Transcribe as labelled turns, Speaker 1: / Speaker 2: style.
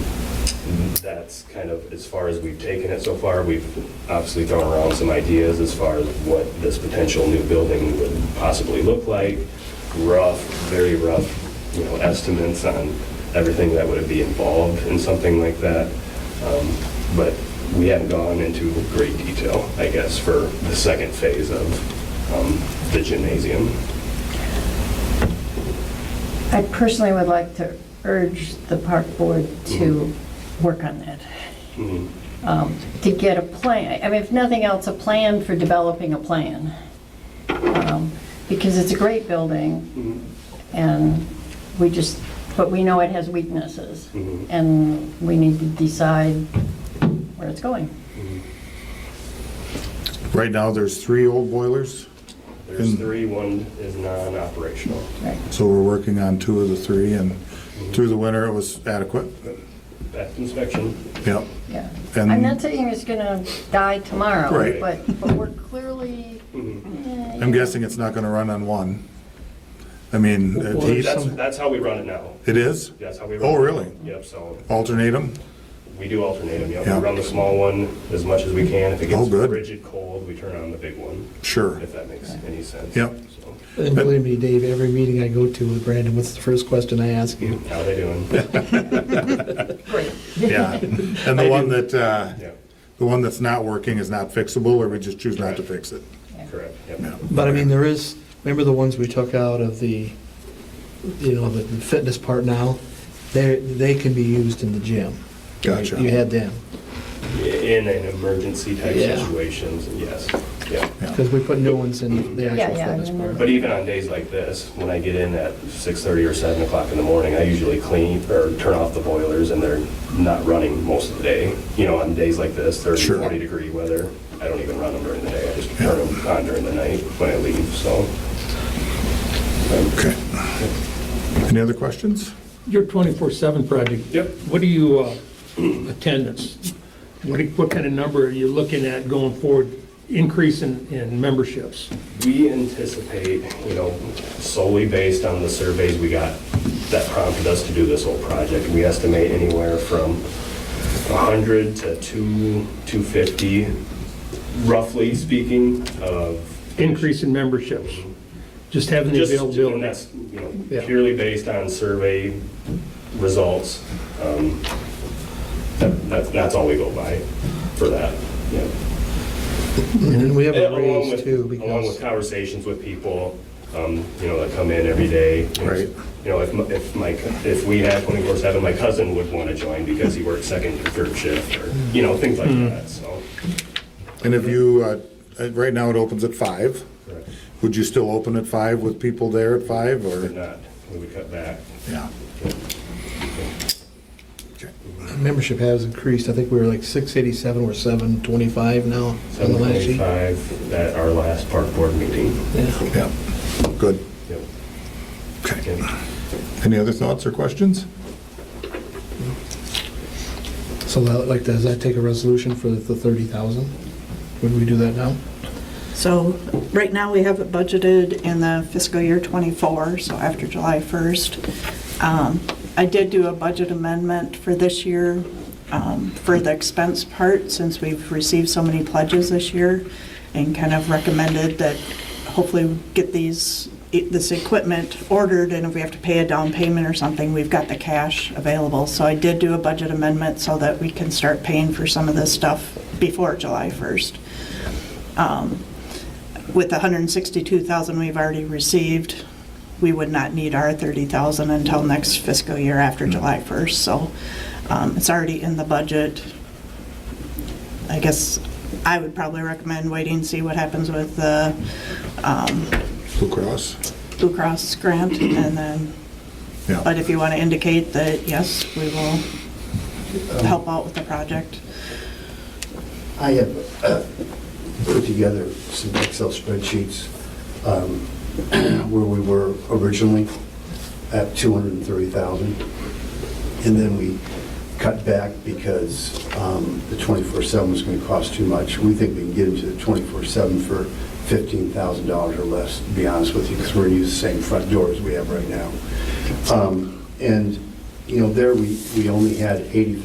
Speaker 1: that's kind of as far as we've taken it so far. We've obviously thrown around some ideas as far as what this potential new building would possibly look like, rough, very rough, you know, estimates on everything that would be involved in something like that. Um, But we haven't gone into great detail, I guess, for the second phase of um, the gymnasium.
Speaker 2: I personally would like to urge the park board to work on that,
Speaker 1: Mhm.
Speaker 2: um, to get a plan, I mean, if nothing else, a plan for developing a plan. Um, Because it's a great building,
Speaker 1: Mhm.
Speaker 2: and we just, but we know it has weaknesses,
Speaker 1: Mhm.
Speaker 2: and we need to decide where it's going.
Speaker 3: Right now, there's three old boilers,
Speaker 1: There's three, one is non-operational.
Speaker 2: Right.
Speaker 3: so we're working on two of the three, and through the winter, it was adequate.
Speaker 1: Best inspection,
Speaker 3: Yep.
Speaker 2: Yeah.
Speaker 3: And-
Speaker 2: I'm not saying it's gonna die tomorrow,
Speaker 3: Right.
Speaker 2: but, but we're clearly, eh,
Speaker 3: I'm guessing it's not gonna run on one. I mean, it heats,
Speaker 1: That's, that's how we run it now.
Speaker 3: it is?
Speaker 1: That's how we run it.
Speaker 3: Oh, really?
Speaker 1: Yep, so
Speaker 3: Alternate them?
Speaker 1: we do alternate them, yep.
Speaker 3: Yeah.
Speaker 1: We run the small one as much as we can. If it gets
Speaker 3: Oh, good.
Speaker 1: rigid cold, we turn on the big one,
Speaker 3: Sure.
Speaker 1: if that makes any sense.
Speaker 3: Yep.
Speaker 1: So,
Speaker 4: And believe me, Dave, every meeting I go to with Brandon, what's the first question I ask you?
Speaker 1: How they doing?
Speaker 2: great.
Speaker 3: Yeah. And the one that, uh,
Speaker 1: Yeah,
Speaker 3: the one that's not working is not fixable, or we just choose not to fix it?
Speaker 1: correct, yep.
Speaker 3: Yeah.
Speaker 4: But I mean, there is, remember the ones we took out of the, you know, the fitness part now? They, they can be used in the gym.
Speaker 3: Gotcha.
Speaker 4: You had them,
Speaker 1: In an emergency type
Speaker 4: Yeah.
Speaker 1: situations, yes, yeah.
Speaker 4: because we put new ones in the
Speaker 2: Yeah,
Speaker 4: actual
Speaker 2: yeah, I
Speaker 4: fitness part.
Speaker 1: But even on days like this, when I get in at 6:30 or 7 o'clock in the morning, I usually clean or turn off the boilers and they're not running most of the day. You know, on days like this, 30,
Speaker 3: Sure.
Speaker 1: 40 degree weather, I don't even run them during the day. I just turn them on during the night when I leave, so.
Speaker 3: Okay. Any other questions?
Speaker 5: Your 24/7 project?
Speaker 1: Yep.
Speaker 5: What do you, uh, attendance? What, do- what kind of number are you looking at going forward, increase in, in memberships?
Speaker 1: We anticipate, you know, solely based on the surveys we got that prompted us to do this whole project, we estimate anywhere from 100 to 2, 250, roughly speaking, of
Speaker 5: Increase in memberships? Just having the
Speaker 1: Just, and
Speaker 5: availability?
Speaker 1: that's, you know,
Speaker 4: Yeah.
Speaker 1: purely based on survey results. Um, that- that- That's all we go by for that, yeah.
Speaker 4: And then we have
Speaker 1: And
Speaker 4: a
Speaker 1: Along
Speaker 4: raise
Speaker 1: with,
Speaker 4: too,
Speaker 1: along with
Speaker 4: because,
Speaker 1: conversations with people, um, you know, that come in every day.
Speaker 3: Right.
Speaker 1: You know, if, my- if my, co- if we had 24/7, my cousin would want to join because he works second or third shift, or, you know, things like that, so.
Speaker 3: And if you, uh, uh, right now, it opens at five.
Speaker 1: correct.
Speaker 3: Would you still open at five with people there at five,
Speaker 1: If
Speaker 3: or?
Speaker 1: not, we would cut back.
Speaker 3: Yeah.
Speaker 4: membership has increased. I think we were like 687, we're 725 now on the last sheet.
Speaker 1: 7:25 at our last park board meeting.
Speaker 4: Yeah.
Speaker 3: Yeah. Good.
Speaker 1: Yep.
Speaker 3: Okay.
Speaker 1: Yep.
Speaker 3: Any other thoughts or questions?
Speaker 4: So that- like, does that take a resolution for the 30,000? Would we do that now?
Speaker 6: So right now, we have it budgeted in the fiscal year '24, so after July 1st. Um, I did do a budget amendment for this year um, for the expense part, since we've received so many pledges this year, and kind of recommended that hopefully we get these, this equipment ordered, and if we have to pay a down payment or something, we've got the cash available. So I did do a budget amendment so that we can start paying for some of this stuff before July 1st Um, with the 162,000 we've already received, we would not need our 30,000 until next fiscal year after July 1st. So um, it's already in the budget. I guess I would probably recommend waiting, see what happens with the um,
Speaker 3: Blue Cross?
Speaker 6: Blue Cross grant and then,
Speaker 3: Yeah.
Speaker 6: but if you want to indicate that, yes, we will help out with the project.
Speaker 7: I have uh, put together some Excel spreadsheets um, where we were originally at 230,000. And then we cut back because um, the 24/7 was going to cost too much. We think we can get into the 24/7 for $15,000 or less, to be honest with you, because we're going to use the same front door as we have right now. Um, And, you know, there we, we only had eighty.